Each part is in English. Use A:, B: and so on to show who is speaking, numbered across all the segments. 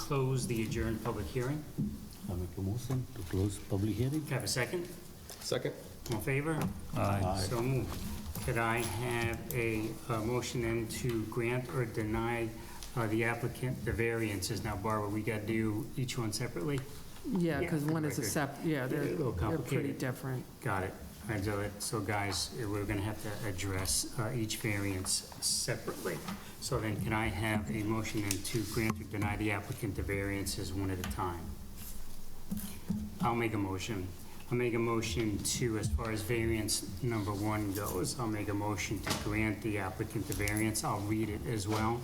A: close the adjourned public hearing.
B: I make a motion to close public hearing.
A: Can I Have a second?
C: Second?
A: All in favor?
B: Aye.
A: So moved. Could I have a uh, motion then to grant or deny uh, the applicant the variances? Now, Barbara, we got to do each one separately?
D: Yeah,
A: Yeah,
D: because one is a
A: record.
D: sep, yeah,
A: a
D: they're,
A: little
D: they're pretty
A: complicated.
D: different.
A: Got it. And so it- So guys, eh, we're going to have to address uh, each variance separately. So then can I have a motion then to grant or deny the applicant the variances one at a time? I'll make a motion. I'll make a motion to, as far as variance number one goes, I'll make a motion to grant the applicant the variance. I'll read it as well.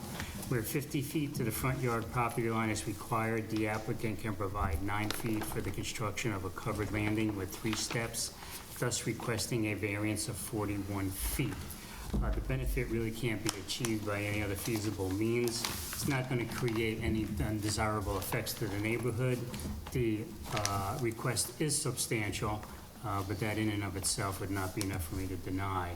A: Where 50 feet to the front yard property line is required, the applicant can provide nine feet for the construction of a covered landing with three steps, thus requesting a variance of 41 feet. Uh, The benefit really can't be achieved by any other feasible means. It's not going to create any undesirable effects to the neighborhood. The uh, request is substantial, uh, but that in and of itself would not be enough for me to deny.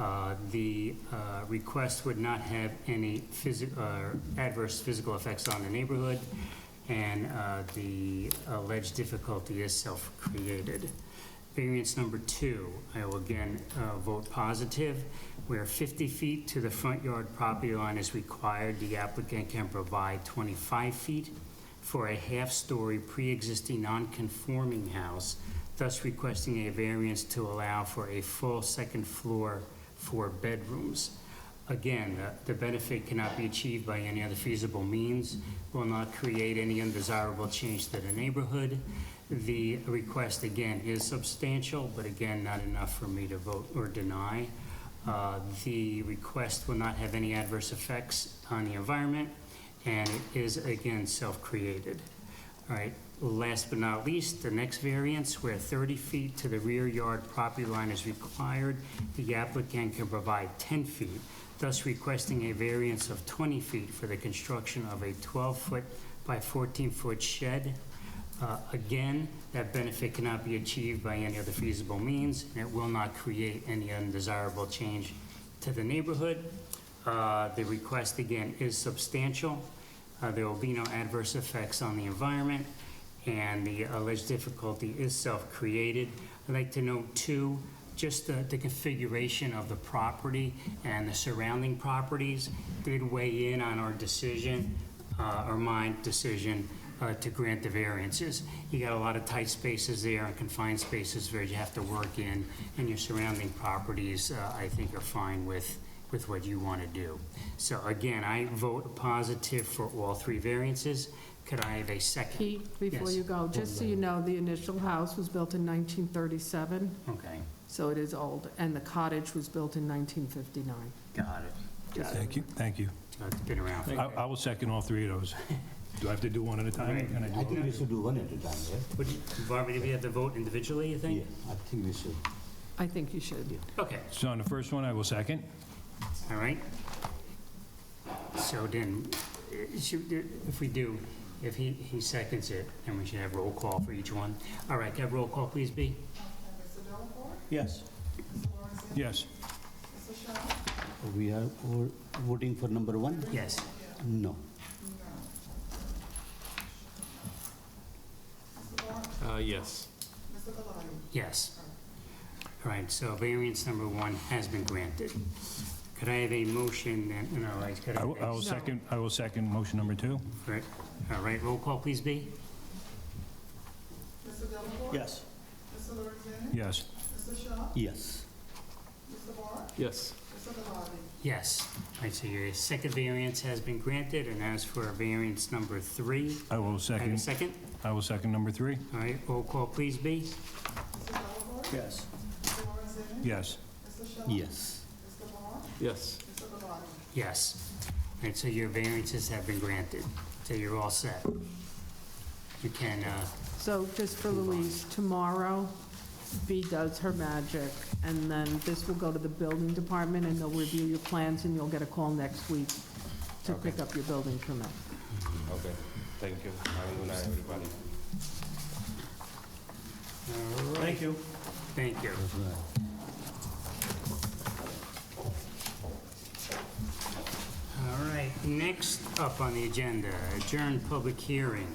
A: Uh, The uh, request would not have any physi- uh, adverse physical effects on the neighborhood, and uh, the alleged difficulty is self-created. Variance number two, I will again uh, vote positive. Where 50 feet to the front yard property line is required, the applicant can provide 25 feet for a half-story pre-existing non-conforming house, thus requesting a variance to allow for a full second floor for bedrooms. Again, the- the benefit cannot be achieved by any other feasible means, will not create any undesirable change to the neighborhood. The request, again, is substantial, but again, not enough for me to vote or deny. Uh, The request will not have any adverse effects on the environment, and it is, again, self-created. All right, last but not least, the next variance, where 30 feet to the rear yard property line is required, the applicant can provide 10 feet, thus requesting a variance of 20 feet for the construction of a 12-foot by 14-foot shed. Uh, Again, that benefit cannot be achieved by any other feasible means, and it will not create any undesirable change to the neighborhood. Uh, The request, again, is substantial. Uh, There will be no adverse effects on the environment, and the alleged difficulty is self-created. I'd like to note, too, just the the configuration of the property and the surrounding properties did weigh in on our decision, uh, or my decision, uh, to grant the variances. You got a lot of tight spaces there and confined spaces where you have to work in, and your surrounding properties, uh, I think, are fine with, with what you want to do. So again, I vote positive for all three variances. Could I have a second?
D: Pete, before
A: Yes.
D: you go, just so you know, the initial house was built in 1937,
A: Okay,
D: so it is old, and the cottage was built in 1959.
A: got it. Got it.
E: Thank you, thank you.
A: Uh, It's been around.
E: I I will second all three of those. Do I have to do one at a time? Can I do
B: I
E: them?
B: think we should do one at a time, right?
A: Would you- Barbara, do we have to vote individually, you think?
B: I think we should.
D: I think you should.
A: Okay,
E: So on the first one, I will second.
A: all right. So then, eh, should do- if we do, if he, he seconds it, then we should have roll call for each one. All right, can I have roll call, please, B?
B: Yes.
E: Yes,
B: We are all voting for number one?
A: Yes.
B: No.
C: Uh, yes.
A: Yes. All right, so variance number one has been granted. Could I have a motion then, no, I could
E: I will I
A: have,
E: will
D: No.
E: second, I will second motion number two.
A: right, all right, roll call, please, B?
B: Yes.
E: Yes,
B: Yes.
C: Yes.
A: Yes. All right, so your second variance has been granted, and as for variance number three,
E: I will
A: I have a
E: second,
A: second?
E: I will second number three.
A: All right, roll call, please, B?
B: Yes.
E: Yes,
B: Yes.
C: Yes.
A: Yes. All right, so your variances have been granted, so you're all set. You can, uh,
D: So just for Louise, tomorrow, B does her magic, and then this will go to the building department, and they'll review your plans, and you'll get a call next week to pick up your building permit.
C: Okay, thank you. Have a good night, everybody.
A: Thank you. Thank you. All right, Next up on the agenda, adjourn public hearing